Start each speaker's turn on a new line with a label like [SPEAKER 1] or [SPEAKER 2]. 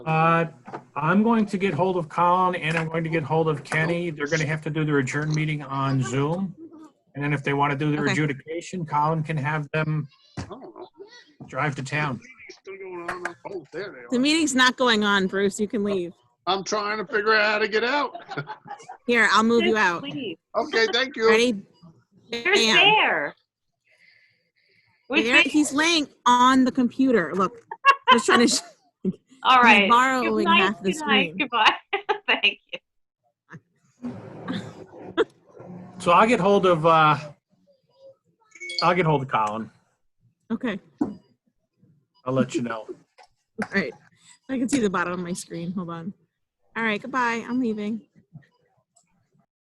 [SPEAKER 1] Uh, I'm going to get hold of Colin and I'm going to get hold of Kenny. They're going to have to do their adjourn meeting on Zoom. And then if they want to do their
[SPEAKER 2] Okay.
[SPEAKER 1] adjudication, Colin can have them
[SPEAKER 3] Oh,
[SPEAKER 1] drive to town.
[SPEAKER 3] still going on. Oh, there
[SPEAKER 2] The
[SPEAKER 3] they are.
[SPEAKER 2] meeting's not going on, Bruce. You can leave.
[SPEAKER 3] I'm trying to figure out how to get out.
[SPEAKER 2] Here, I'll move you out.
[SPEAKER 4] Please.
[SPEAKER 3] Okay, thank you.
[SPEAKER 2] Ready?
[SPEAKER 4] There's
[SPEAKER 2] Bam.
[SPEAKER 4] there. We
[SPEAKER 2] There,
[SPEAKER 4] think,
[SPEAKER 2] he's laying on the computer. Look, just trying to. sh-
[SPEAKER 4] all right.
[SPEAKER 2] borrowing
[SPEAKER 4] Good night,
[SPEAKER 2] half the
[SPEAKER 4] good night,
[SPEAKER 2] screen.
[SPEAKER 4] Goodbye. Thank you.
[SPEAKER 1] So I'll get hold of, uh, I'll get hold of Colin.
[SPEAKER 2] Okay,
[SPEAKER 1] I'll let you know.
[SPEAKER 2] all right. I can see the bottom of my screen. Hold on. All right, goodbye. I'm leaving.